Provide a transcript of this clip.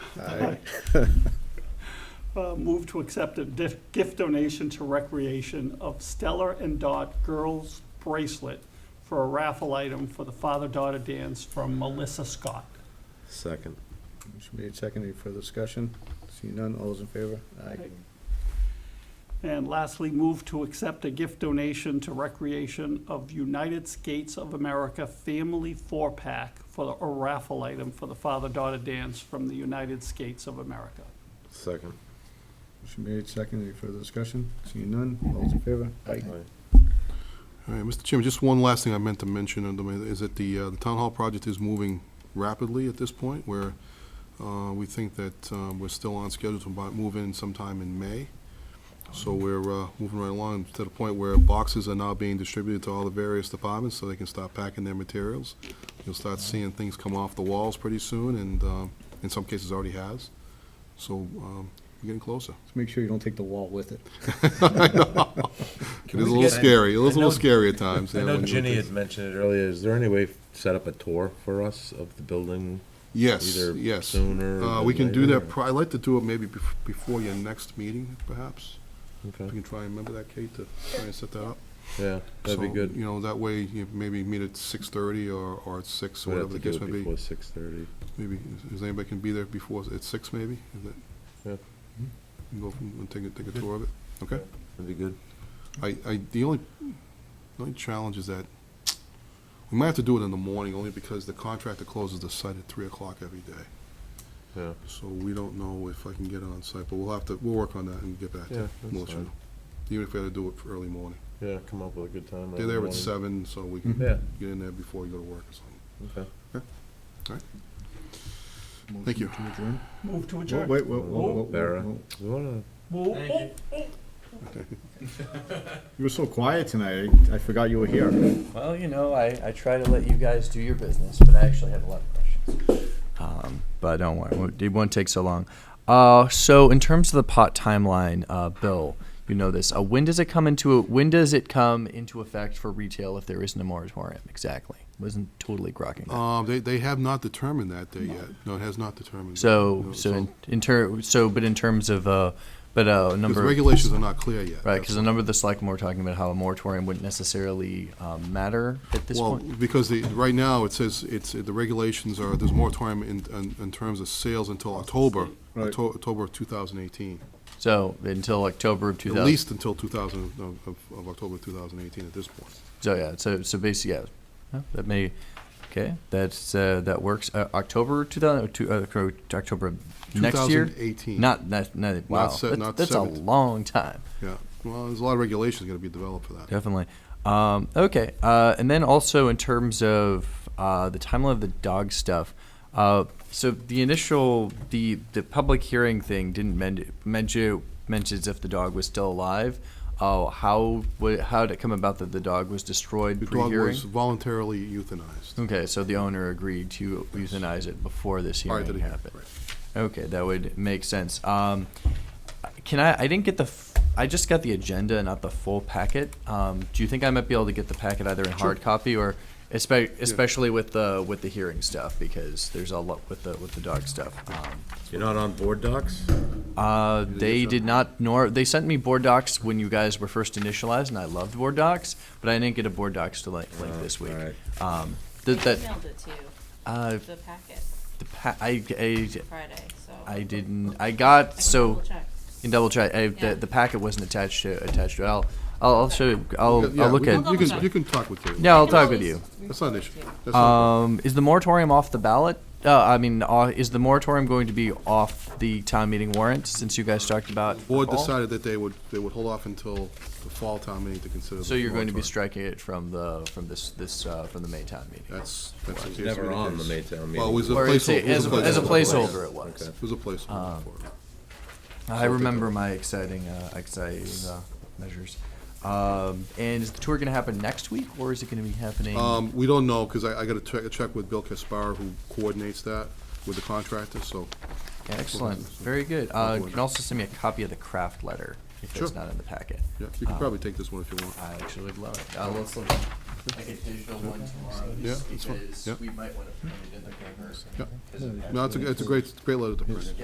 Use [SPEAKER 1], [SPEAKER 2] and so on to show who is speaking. [SPEAKER 1] Aye.
[SPEAKER 2] Uh, Move to accept a dif- gift donation to recreation of Stellar and Dot Girls Bracelet for a raffle item for the father-daughter dance from Melissa Scott.
[SPEAKER 1] Second.
[SPEAKER 3] Motion made second, any further discussion? Seeing none, all those in favor? Aye.
[SPEAKER 2] And lastly, move to accept a gift donation to recreation of United Skates of America Family Four-Pack for the- a raffle item for the father-daughter dance from the United Skates of America.
[SPEAKER 1] Second.
[SPEAKER 3] Motion made second, any further discussion? Seeing none, all those in favor? Aye.
[SPEAKER 4] All right, Mr. Chairman, just one last thing I meant to mention, and, um, is that the, uh, the town hall project is moving rapidly at this point, where, uh, we think that, um, we're still on schedule to buy- move in sometime in May. So we're, uh, moving right along to the point where boxes are now being distributed to all the various departments, so they can start packing their materials. You'll start seeing things come off the walls pretty soon, and, um, in some cases already has. So, um, we're getting closer.
[SPEAKER 3] Just make sure you don't take the wall with it.
[SPEAKER 4] It is a little scary, it is a
[SPEAKER 5] I know-
[SPEAKER 4] little scary at times.
[SPEAKER 5] I
[SPEAKER 4] yeah,
[SPEAKER 5] know
[SPEAKER 4] when you-
[SPEAKER 5] Ginny had mentioned it earlier. Is there any way to set up a tour for us of the building?
[SPEAKER 4] Yes,
[SPEAKER 5] either
[SPEAKER 4] yes.
[SPEAKER 5] sooner
[SPEAKER 4] Uh,
[SPEAKER 5] than
[SPEAKER 4] we can do
[SPEAKER 5] later,
[SPEAKER 4] that,
[SPEAKER 5] or-
[SPEAKER 4] pri- I'd like to do it maybe bef- before your next meeting, perhaps.
[SPEAKER 5] Okay.
[SPEAKER 4] If you can try and remember that, Kate, to try and set that up.
[SPEAKER 5] Yeah, that'd be
[SPEAKER 4] So,
[SPEAKER 5] good.
[SPEAKER 4] You know, that way you maybe meet at six thirty or, or at six, or
[SPEAKER 5] We'd have
[SPEAKER 4] whatever
[SPEAKER 5] to
[SPEAKER 4] the
[SPEAKER 5] do
[SPEAKER 4] case
[SPEAKER 5] it
[SPEAKER 4] may be.
[SPEAKER 5] before six thirty.
[SPEAKER 4] Maybe, is- is anybody can be there before, at six maybe? Is that-
[SPEAKER 5] Yeah.
[SPEAKER 4] Mhm. You Go from, and take a, take a tour of it, okay?
[SPEAKER 5] That'd be good.
[SPEAKER 4] I, I, the only, the only challenge is that we might have to do it in the morning, only because the contractor closes the site at three o'clock every day.
[SPEAKER 5] Yeah.
[SPEAKER 4] So we don't know if I can get it on site, but we'll have to, we'll work on that and get back to
[SPEAKER 5] Yeah,
[SPEAKER 4] you.
[SPEAKER 5] that's
[SPEAKER 4] We'll let you
[SPEAKER 5] fine.
[SPEAKER 4] know. Even if we had to do it for early morning.
[SPEAKER 5] Yeah, come up with a good time.
[SPEAKER 4] They're
[SPEAKER 5] early
[SPEAKER 4] there at
[SPEAKER 5] morning.
[SPEAKER 4] seven, so we can
[SPEAKER 5] Yeah.
[SPEAKER 4] get in there before you go to work or something.
[SPEAKER 5] Okay.
[SPEAKER 4] Thank you.
[SPEAKER 3] Motion to adjourn?
[SPEAKER 2] Move to
[SPEAKER 3] Whoa,
[SPEAKER 2] adjourn.
[SPEAKER 3] Wait, whoa,
[SPEAKER 5] Oh,
[SPEAKER 3] whoa, whoa, whoa,
[SPEAKER 5] Barra.
[SPEAKER 3] whoa.
[SPEAKER 5] We wanna.
[SPEAKER 2] Move- oh,
[SPEAKER 3] You were so quiet tonight, I I forgot you were here.
[SPEAKER 6] Well, you know, I, I try to let you guys do your business, but I actually have a lot of questions. Um, but don't worry, won't- it won't take so long. Uh, so in terms of the pot timeline, uh, Bill, you know this. Uh, when does it come into when does it come into effect for retail if there isn't a moratorium? Exactly. Wasn't totally grokking. that.
[SPEAKER 4] Um, they, they have not determined that day yet. No, it has not determined.
[SPEAKER 6] so
[SPEAKER 4] No,
[SPEAKER 6] so in, in ter- so but in terms of uh, but uh,
[SPEAKER 4] Because
[SPEAKER 6] number
[SPEAKER 4] regulations are not clear yet.
[SPEAKER 6] right
[SPEAKER 4] that's
[SPEAKER 6] because a number of the selectmen were talking about how a moratorium wouldn't necessarily um, matter at this
[SPEAKER 4] Well,
[SPEAKER 6] point.
[SPEAKER 4] because the, right now, it says, it's, the regulations are, there's moratorium in, in, in terms of sales until October,
[SPEAKER 3] Right.
[SPEAKER 4] Octo- October of two thousand eighteen.
[SPEAKER 6] So until October of
[SPEAKER 4] At
[SPEAKER 6] 2000.
[SPEAKER 4] least until two thousand, of, of- of October two thousand eighteen at this point.
[SPEAKER 6] So yeah, so so basically, yeah, no, that may, okay, that's uh, that works. Uh, October two thousand two, uh, cor- October of next year.
[SPEAKER 4] 2018.
[SPEAKER 6] Not not not wow.
[SPEAKER 4] se-
[SPEAKER 6] that's
[SPEAKER 4] not
[SPEAKER 6] that's a
[SPEAKER 4] 17.
[SPEAKER 6] long time,
[SPEAKER 4] Yeah, well, there's a lot of regulations gonna be developed for that.
[SPEAKER 6] definitely. Um, okay, uh, and then also in terms of uh, the timeline of the dog stuff. Uh, so the initial the the public hearing thing didn't men- mention mentions if the dog was still alive. Oh, how would how did it come about that the dog was destroyed
[SPEAKER 4] The dog
[SPEAKER 6] pre-hearing?
[SPEAKER 4] was voluntarily euthanized.
[SPEAKER 6] Okay, so the owner agreed to euthanize it before this
[SPEAKER 4] Prior to the
[SPEAKER 6] hearing
[SPEAKER 4] hearing,
[SPEAKER 6] happened.
[SPEAKER 4] right.
[SPEAKER 6] Okay, that would make sense. Um, can I, I didn't get the, f- I just got the agenda, not the full packet. Um, do you think I might be able to get the packet either in hard copy or, espe- especially with the, with the hearing stuff? Because there's a lot with the, with the dog stuff. Um,
[SPEAKER 5] You're not on board docs?
[SPEAKER 6] uh, they did not, nor, they sent me board docs when you guys were first initialized and I loved board docs, but I didn't get a board docs to like, link
[SPEAKER 4] Uh,
[SPEAKER 6] this week.
[SPEAKER 5] alright.
[SPEAKER 6] Um,
[SPEAKER 7] I
[SPEAKER 6] th- that,
[SPEAKER 7] emailed it to you,
[SPEAKER 6] uh,
[SPEAKER 7] the packet,
[SPEAKER 6] The pa- I, I,
[SPEAKER 7] Friday, so.
[SPEAKER 6] I didn't. I got
[SPEAKER 7] can
[SPEAKER 6] so
[SPEAKER 7] double check.
[SPEAKER 6] in double check. I,
[SPEAKER 7] Yeah.
[SPEAKER 6] the, the packet wasn't attached to attached to. it. I'll I'll, I'll show. you- I'll
[SPEAKER 4] Yeah,
[SPEAKER 6] I'll look
[SPEAKER 4] we can-
[SPEAKER 6] at.
[SPEAKER 7] I'll
[SPEAKER 4] You can,
[SPEAKER 7] double
[SPEAKER 4] you can talk with Kate.
[SPEAKER 6] Yeah, I'll
[SPEAKER 7] I can
[SPEAKER 6] talk with
[SPEAKER 7] always
[SPEAKER 6] you.
[SPEAKER 4] That's not an issue.
[SPEAKER 7] report
[SPEAKER 4] That's not
[SPEAKER 6] Um, is the moratorium off the ballot? Uh, I mean, uh, is the moratorium going to be off the town meeting warrant since you guys talked about?
[SPEAKER 4] the board
[SPEAKER 6] fall?
[SPEAKER 4] decided that they would, they would hold off until the fall town meeting to consider.
[SPEAKER 6] So
[SPEAKER 4] the
[SPEAKER 6] you're going to be
[SPEAKER 4] moratorium.
[SPEAKER 6] striking it from the from this this uh, from the May town meeting.
[SPEAKER 4] That's, that's.
[SPEAKER 5] It's
[SPEAKER 4] appears to
[SPEAKER 5] never
[SPEAKER 4] be the
[SPEAKER 5] on the
[SPEAKER 4] case.
[SPEAKER 5] Maytown
[SPEAKER 4] Well, it
[SPEAKER 5] meeting.
[SPEAKER 4] was a
[SPEAKER 6] Or it's a-
[SPEAKER 4] placeholder. it was
[SPEAKER 6] as a- as a placeholder, Um. it
[SPEAKER 5] Okay.
[SPEAKER 6] was.
[SPEAKER 4] It was a placeholder for it.
[SPEAKER 6] I remember my exciting, uh, exciting uh, measures. Um, and is the tour going to happen next week, or is it going to be happening?
[SPEAKER 4] Um, we don't know, because I, I gotta check, check with Bill Caspar, who coordinates that with the contractor, so.
[SPEAKER 6] Excellent, very good. Uh, you
[SPEAKER 4] Forward.
[SPEAKER 6] can also send me a copy of the craft letter if
[SPEAKER 4] Sure.
[SPEAKER 6] it's not in the packet.
[SPEAKER 4] Yeah, you can
[SPEAKER 6] Uh,
[SPEAKER 4] probably take this one if you want.
[SPEAKER 6] I actually would love it. Uh, let's look. Like a digital one tomorrow,
[SPEAKER 4] Yeah, just that's fine. because Yeah.
[SPEAKER 6] we might want to print it in the paper.
[SPEAKER 4] Yeah. No, it's a, it's a great, it's a great letter to print.